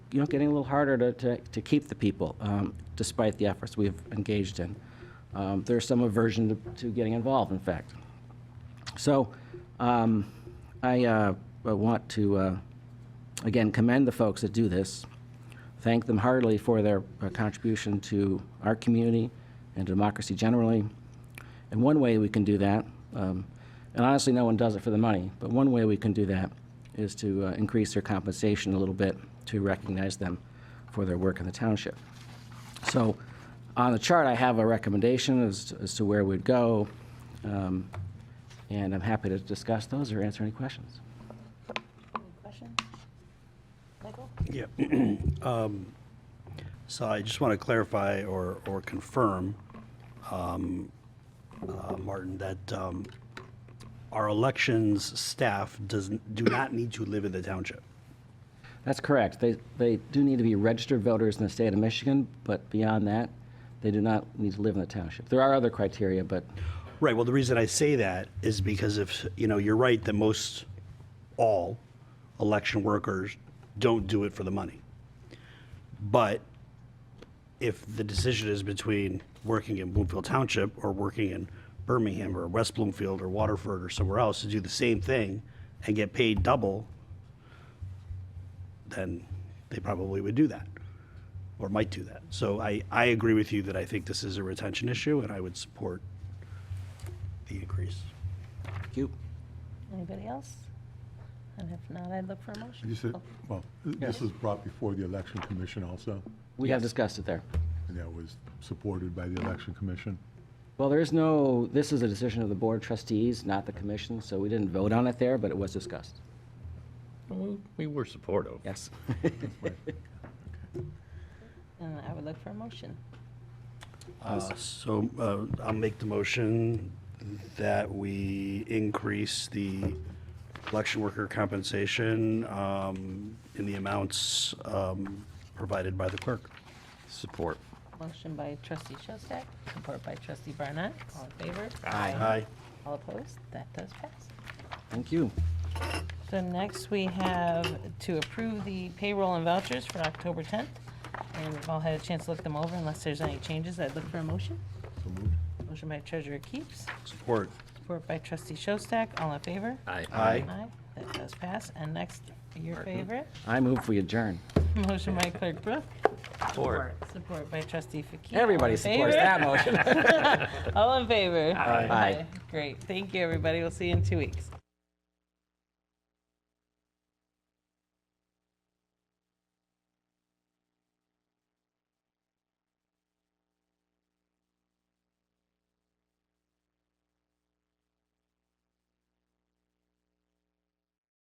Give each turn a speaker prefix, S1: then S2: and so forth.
S1: you know, getting a little harder to, to, to keep the people, um, despite the efforts we've engaged in. Um, There's some aversion to- to getting involved, in fact. So um, I uh, I want to, uh, again, commend the folks that do this, thank them heartily for their uh, contribution to our community and democracy generally. And one way we can do that, um, and honestly, no one does it for the money, but one way we can do that is to uh, increase their compensation a little bit to recognize them for their work in the township. So on the chart, I have a recommendation as, as to where we'd go, um, and I'm happy to discuss those or answer any questions.
S2: Any questions? Michael?
S3: Yeah. Um, So I just want to clarify or, or confirm, um, uh, Martin, that um, our elections staff doesn't, do not need to live in the township.
S1: That's correct. They, they do need to be registered voters in the state of Michigan, but beyond that, they do not need to live in the township. There are other criteria, but
S3: Right, well, the reason I say that is because if, you know, you're right that most, all election workers don't do it for the money. But if the decision is between working in Bloomfield Township or working in Birmingham or West Bloomfield or Waterford or somewhere else to do the same thing and get paid double, then they probably would do that or might do that. So I, I agree with you that I think this is a retention issue and I would support the increase.
S1: thank you.
S2: Anybody else? And if not, I'd look for a motion.
S4: You said, well, th- this
S1: Yes.
S4: was brought before the election commission also,
S1: We have discussed it there.
S4: and that was supported by the election commission.
S1: Well, there is no, this is a decision of the board of trustees, not the commission, so we didn't vote on it there, but it was discussed.
S5: We we were supportive.
S1: Yes.
S2: Uh, I would look for a motion.
S3: Uh, So uh, I'll make the motion that we increase the election worker compensation um, in the amounts um, provided by the clerk.
S5: Support.
S2: Motion by trustee Shostak, support by trustee Barnett. All in favor?
S3: Aye.
S2: All opposed? That does pass.
S1: Thank you.
S2: So next, we have to approve the payroll and vouchers for October 10th. And we've all had a chance to look them over. Unless there's any changes, I'd look for a motion.
S4: So moved.
S2: Motion by treasurer Keeps,
S3: Support.
S2: support by trustee Shostak. All in favor?
S5: Aye.
S3: Aye.
S2: Aye. That does pass. And next, your favorite,
S1: I move we adjourn.
S2: motion by clerk Brooke,
S5: Support.
S2: support by trustee Fakir. All
S1: Everybody
S2: in
S1: supports
S2: favor?
S1: that motion.
S2: All in favor?
S1: Aye.
S2: Great. Thank you, everybody. We'll see you in two weeks.